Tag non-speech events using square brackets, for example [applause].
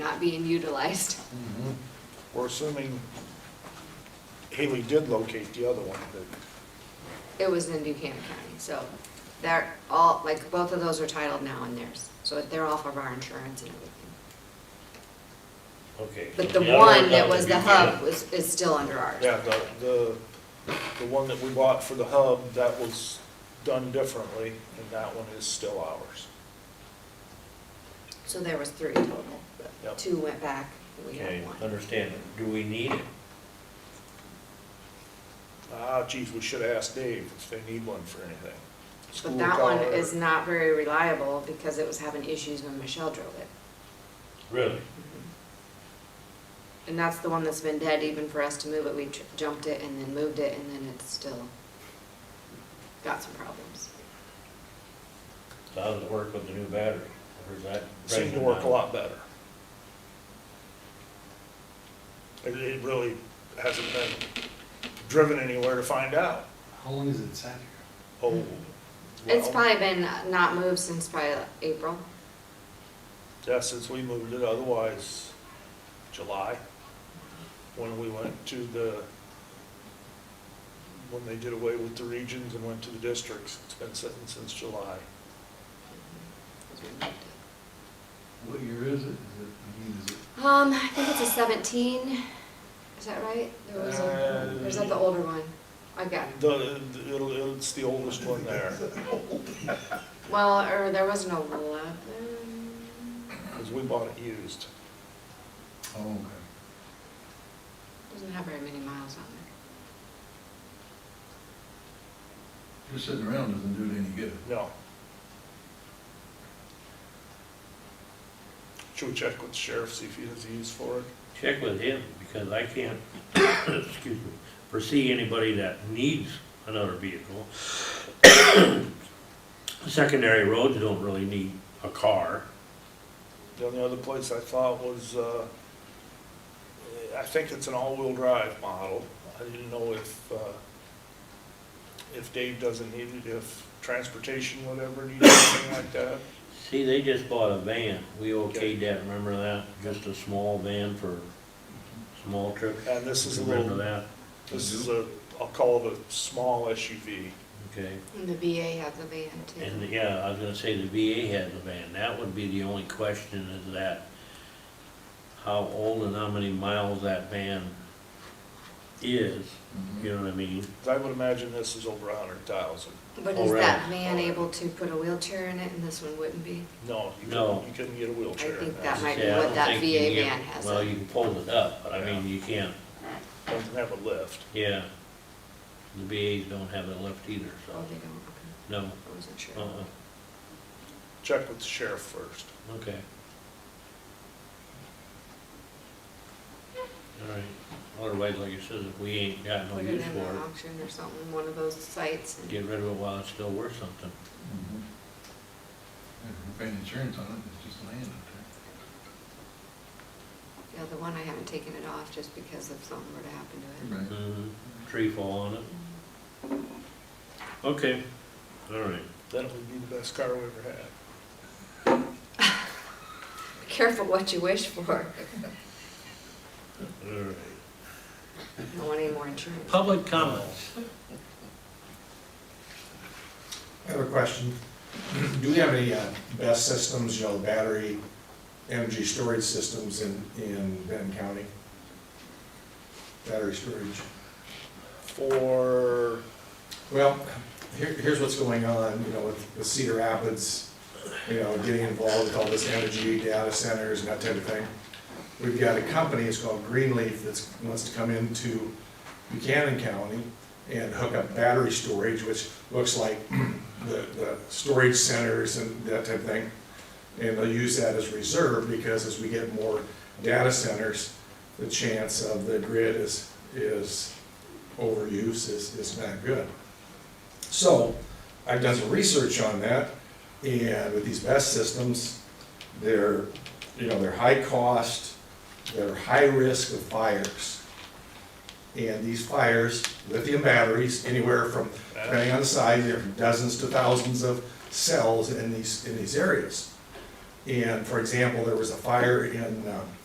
being utilized. [laughs] Mhm. We're assuming Haley did locate the other one, but It was in Buchanan County, so they're all, like, both of those are titled now in theirs. So they're off of our insurance and everything. Okay. But so the other one that got was to the be hub good. was, is still under ours. yeah, the, the, the one that we bought for the hub, that was done differently, and that one is still ours. So there was three total, but Yep. two went back, and we Okay, had one. understand. Do we need it? Ah, geez, we should ask Dave if they need one for anything. School But that one car. is not very reliable because it was having issues when Michelle drove it. Really? Mm-hmm. And that's the one that's been dead even for us to move it. We tr- jumped it and then moved it and then it's still got some problems. So how does it work with the new battery? Or is that? Seemed to present work a now? lot better. It, it really hasn't been driven anywhere to find out. How long has it sat here? Oh. It's well, probably been not moved since probably like April. Yeah, since we moved it, otherwise, July, when we went to the, when they did away with the regions and went to the districts, it's been sitting since July. 'cause we moved it. What year is it? Is it, I mean, is it, Um, I think it's a seventeen, is that right? There was a, Uh, or is that the older one? I got, The, the- it'll, it's the oldest one there, well, or there was an eleven, because we bought it used. oh, okay. doesn't have very many miles on it. Just sitting around doesn't do it any good. No. Should we check with the sheriff, see if he has a use for it? Check with him, because I can't, [coughs] excuse me, foresee anybody that needs another vehicle. [coughs] Secondary roads don't really need a car. The only other place I thought was, uh, I think it's an all-wheel drive model. I didn't know if, uh, if Dave doesn't need it, if transportation would ever need anything like that. See, they just bought a van. We okayed that, remember that? Just a small van for small trips. And this is a Remember little, that? this is a, I'll call it a small SUV. Okay. And the VA had the van too. And, yeah, I was gonna say the VA has a van, that would be the only question is that, how old and how many miles that van is, Mm-hmm. you know what I mean? 'Cause I would imagine this is over a hundred thousand. But Oh, is really? that van able to put a wheelchair in it and this one wouldn't be? No, you No. couldn't, you couldn't get a wheelchair in think that. that might be Yeah, I what don't that think you VA can get- van has Well, in. you can pull it up, but I mean, you can't, Doesn't have a lift. yeah. The VAs don't have it left either, Oh, so, they don't, okay, no, I wasn't sure. uh-uh, Check with the sheriff first. okay. All right, otherwise, like you said, if we ain't got no Put it use in for an it, auction or something, one of those sites. and- get rid of it while it's still worth something. Mhm. If we're Mm-hmm. paying insurance on it, it's just land up Yeah, the one I haven't taken it off just because if something were to happen to there. it. Right. Mhm, Tree fall on it. Okay, all right. Then it would be the best car we ever had. Be Careful what you wish for. All right. Don't want any more insurance. Public comments. I have a question. Do we have any uh, best systems, you know, battery energy storage systems in, in Benton County? Battery storage. For Well, here, here's what's going on, you know, with with Cedar Rapids, you know, getting involved with all this energy, data centers and that type of thing. We've got a company, it's called Greenleaf, that wants to come into Buchanan County and hook up battery storage, which looks like [clears throat] the, the storage centers and that type of thing. And they'll use that as reserve, because as we get more data centers, the chance of the grid is, is overuse is, is not good. So I've done some research on that, and with these best systems, they're, you know, they're high cost, they're high risk of fires. And these fires, lithium batteries, anywhere from, depending on the size, there are dozens to thousands of cells in these, in these areas. And for example, there was a fire in um,